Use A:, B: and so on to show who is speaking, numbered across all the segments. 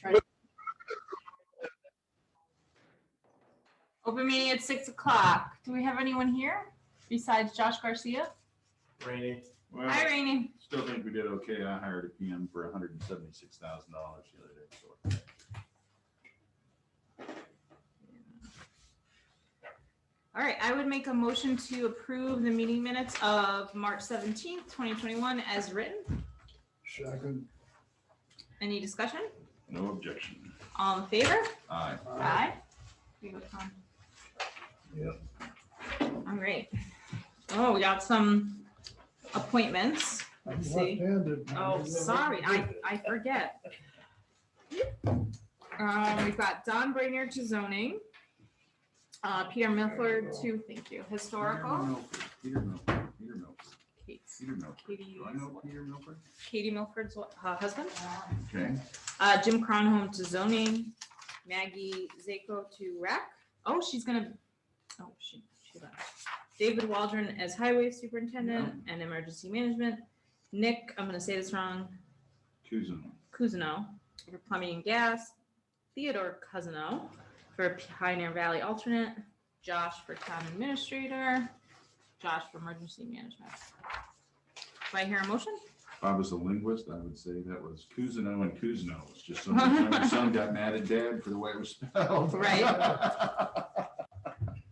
A: trying to
B: Open meeting at six o'clock. Do we have anyone here besides Josh Garcia?
C: Rainy.
D: Well,
B: Hi, Rainey.
D: still think we did okay. I hired a PM for hundred and seventy-six thousand dollars the other day. so.
B: All right, I would make a motion to approve the meeting minutes of March seventeenth, twenty twenty-one as written.
A: Second,
B: Any discussion?
D: No objection.
B: All in favor?
D: Aye.
A: aye.
B: Aye. Here you go, Tom.
D: Yeah.
B: All right. Oh, we got some appointments.
A: I'm
B: Let's see.
A: left-handed.
B: Oh, sorry, I, I forget. Um, we've got Don Brainerd to zoning. Uh, Peter Milford to, thank you, historical.
D: Peter Milford, Peter Milford,
B: Kate's-
D: Peter Milford.
B: Katie-
D: Do I know Peter Milford?
B: Katie Milford's wa- uh, husband.
D: Okay.
B: Uh, Jim Cronholm to zoning, Maggie Zako to rec. Oh, she's gonna, oh, she, she left. David Waldron as highway superintendent and emergency management. Nick, I'm gonna say this wrong,
D: Kuzma.
B: Cousineau for plumbing and gas, Theodore Cousineau for Pioneer Valley alternate, Josh for town administrator, Josh for emergency management. Do I hear a motion?
D: If I was a linguist, I would say that was Kuzno and Kuzno. It's just so much my son got mad at dad for the way it was spelled.
B: Right.
A: I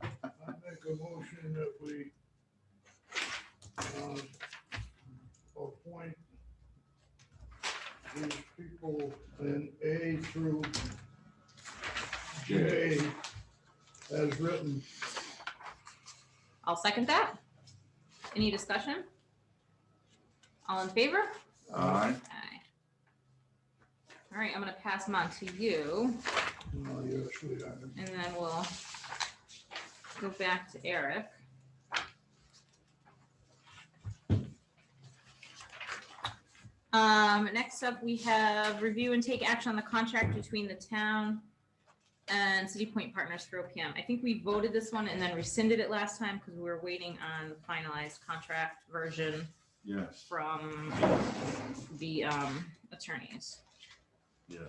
A: make a motion that we uh, appoint these people in A through
D: J.
A: J as written.
B: I'll second that. Any discussion? All in favor? Aye.
D: Aye.
B: All right, I'm gonna pass them on to you
A: Oh, yes, we are.
B: and then we'll go back to Eric. Um, next up, we have review and take action on the contract between the town and City Point Partners for OPM. I think we voted this one and then rescinded it last time because we were waiting on the finalized contract version
D: Yes,
B: from the, um, attorneys.
D: yes.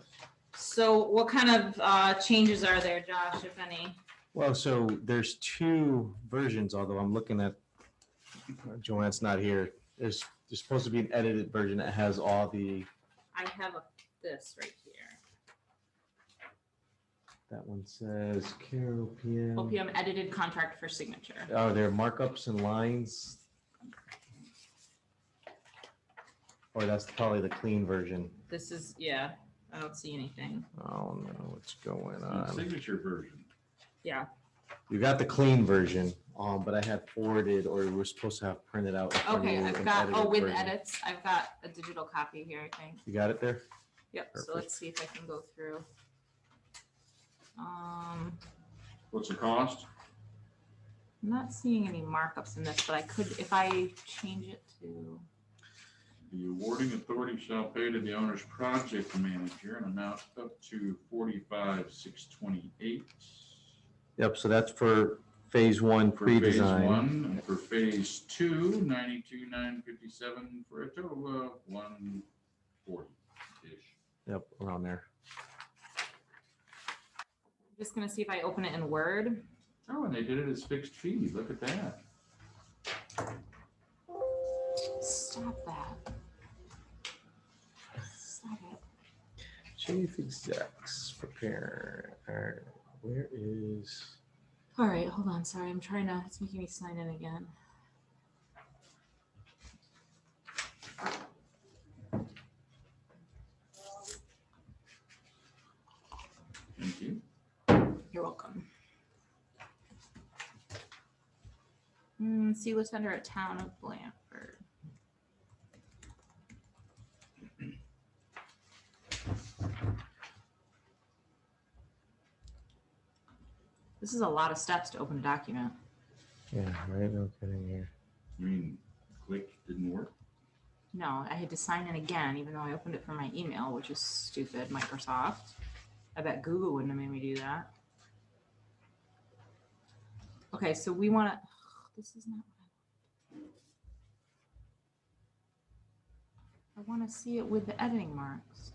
B: So what kind of, uh, changes are there, Josh, if any?
C: Well, so there's two versions, although I'm looking at, uh, Joanne's not here. There's, there's supposed to be an edited version that has all the,
B: I have a- this right here.
C: that one says Carol PM.
B: OPM edited contract for signature.
C: Are there markups and lines? Or that's probably the clean version.
B: This is, yeah, I don't see anything.
C: Oh no, what's going
D: The
C: on?
D: Signature version.
C: You got the clean version, um, but I had forwarded or we were supposed to have printed out. in front of
B: Okay,
C: you
B: I've
C: an
B: got, oh,
C: edited
B: with
C: version.
B: edits, I've got a digital copy here, I think.
C: You got it there?
B: Yep, so
C: Perfect.
B: let's see if I can go through. Um,
D: What's the cost?
B: I'm not seeing any markups in this, but I could, if I change it to,
D: The awarding authority shall pay to the owner's project manager an amount up to forty-five, six twenty-eight.
C: Yep, so that's for phase one
D: For phase
C: pre-design.
D: one, and for phase two, ninety-two, nine fifty-seven, for a total of one forty-ish.
C: Yep, around there.
B: I'm just gonna see if I open it in Word.
D: Oh, and they did it as fixed fee, look at that.
B: Stop that. Stop it.
C: Chief execs prepare. Alright, Where is,
B: All right, hold on. Sorry, I'm trying to. It's making me sign in again.
D: Thank you.
B: You're welcome. Mm, see what's under a town of Blanford. This is a lot of steps to open a document.
C: yeah, right, no kidding here.
D: You mean, click didn't work?
B: No, I had to sign in again, even though I opened it from my email, which is stupid, Microsoft. I bet Google wouldn't have made me do that. Okay, so we want to, this is not. what I want to see it with the editing marks.